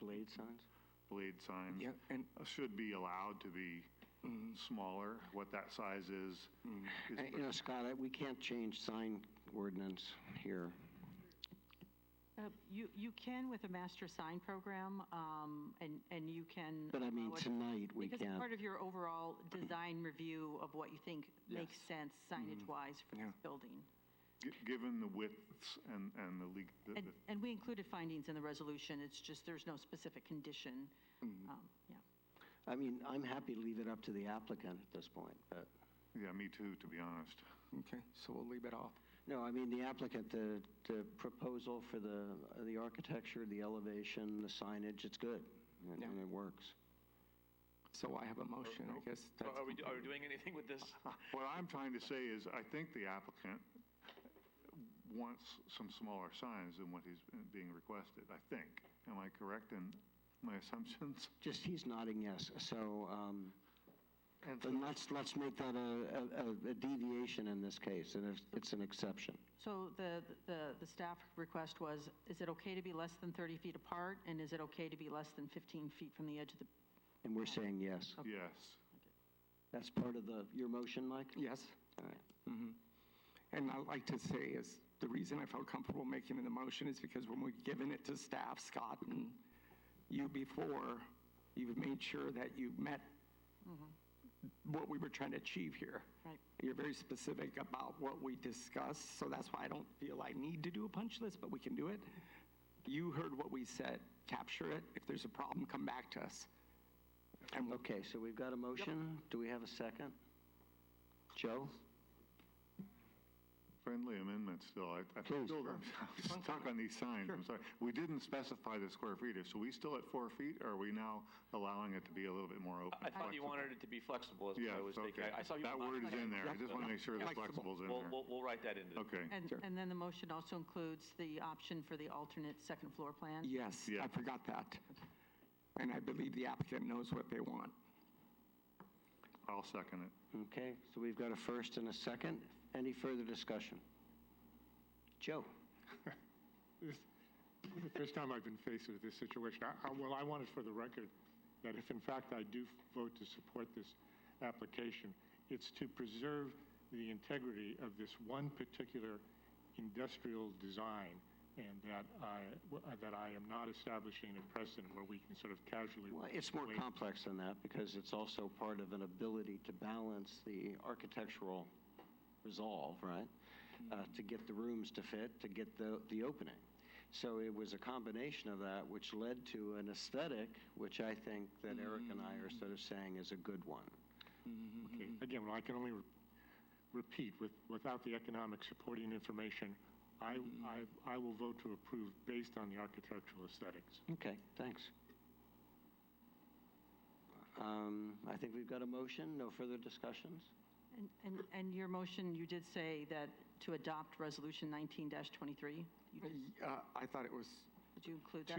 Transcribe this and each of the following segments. blade signs? blade signs Yeah, and, uh, should be allowed to be Mm-hmm. smaller. What that size is, is and, Uh, you know, Scott, I- we can't change sign ordinance here. Uh, You, you can with a master sign program, um, and, and you can. But I mean, allow it- tonight, we Because it's can't. part of your overall design review of what you think makes sense signage-wise for Mm-hmm. Yeah. this building. gi- given the widths and, and the leak, the- And, the- and we included findings in the resolution, it's just there's no specific condition. Mm-hmm. Um, Yeah. I mean, I'm happy to leave it up to the applicant at this point, but, yeah, me too, to be honest. Okay, so we'll leave it off. no, I mean, the applicant, the, the proposal for the, the architecture, the elevation, the signage, it's good. and- Yeah. And it works. So I have a motion, I guess. So that's- Are we, do- are we doing anything with this? What I'm trying to say is, I think the applicant wants some smaller signs than what he's being requested, I think. Am I correct in my assumptions? Just, he's nodding yes, so, um, And so then let's, let's make that a, a- a deviation in this case, and it's- it's an exception. So the, the, the staff request was, is it okay to be less than 30 feet apart, and is it okay to be less than 15 feet from the edge of the And we're saying yes. Yes. That's part of the, your motion, Mike? Yes? All right. Mhm. And I'd like to say is, the reason I felt comfortable making the motion is because when we've given it to staff, Scott, and you before, you've made sure that you met what we were trying to achieve here. Right. You're very specific about what we discussed, so that's why I don't feel I need to do a punch list, but we can do it. You heard what we said, capture it. If there's a problem, come back to us. And we'll Okay, so we've got a motion. Do we have a second? Joe? Friendly amendment still, I, I Please. still, I'm stuck on these signs, I'm sorry. We didn't specify the square footage, so we still at four feet, or are we now allowing it to be a little bit more open? I thought flexible? you wanted it to be flexible, is what Yes, I was thinking. okay. I- I saw you. That word is in there, I just want to make sure the flexible's Flexible. in We'll, there. we'll, we'll write that into the. Okay, And, Sure. and then the motion also includes the option for the alternate second floor plan? Yes, Yeah. I forgot that. And I believe the applicant knows what they want. I'll second it. Okay, so we've got a first and a second. Any further discussion? Joe? The first time I've been faced with this situation. I- I- Well, I want it for the record that if in fact I do vote to support this application, it's to preserve the integrity of this one particular industrial design and that I, w- uh, that I am not establishing a precedent where we can sort of casually. Well, it's more wait. complex than that because it's also part of an ability to balance the architectural resolve, right? Uh, to get the rooms to fit, to get the, the opening. So it was a combination of that which led to an aesthetic, which I think that Eric and I are sort of saying is a good one. Okay, mm-hmm. Again, well, I can only re- repeat, with, without the economic supporting information, I, Mm-hmm. I, I will vote to approve based on the architectural aesthetics. Okay, thanks. Um, I think we've got a motion, no further discussions? And, and, and your motion, you did say that to adopt resolution nineteen twenty-three? Uh, I thought it was Did you include that?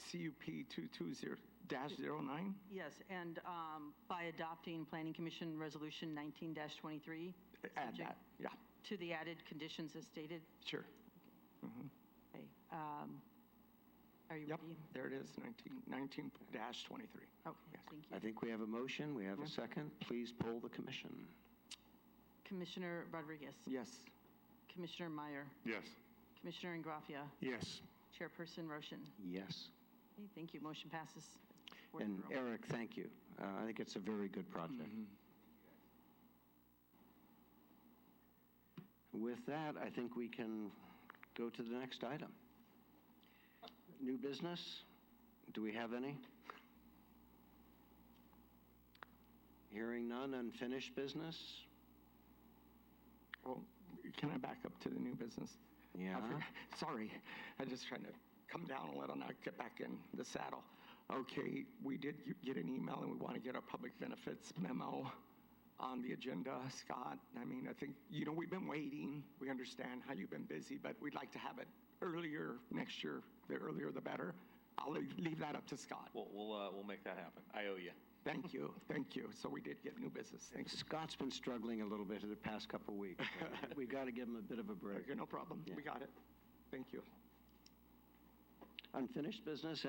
two- uh, CUP 220-09? Yes, and, um, by adopting planning commission resolution nineteen twenty-three? Add that, yeah, To the added conditions as stated? sure. Mm-hmm, Okay, um, Are you Yep, ready? there it is, 19 19-23. Okay, thank you. I think we have a motion, we have a second. Please poll the commission. Commissioner Rodriguez? Yes, Commissioner Meyer? Yes. Commissioner Ingraffia? Yes. Chairperson Roshan? Yes. Okay, Thank you, motion passes. four to And zero. Eric, thank you. Uh, I think it's a very good project. With that, I think we can go to the next item. New business? Do we have any? Hearing none, unfinished business? well, can I back up to the new business? I Yeah. forgot- Sorry, I just trying to come down a little, now get back in the saddle. Okay, we did g- get an email, and we want to get our public benefits memo on the agenda, Scott. I mean, I think, you know, we've been waiting, we understand how you've been busy, but we'd like to have it earlier next year, the earlier the better. I'll leave leave that up to Scott. We'll, we'll, uh, we'll make that happen. I owe you. Thank you, thank you. So we did get new business, thanks. Scott's been struggling a little bit the past couple of weeks. we got to give him a bit of a break. Okay, no problem, we got it. Thank you. Unfinished business,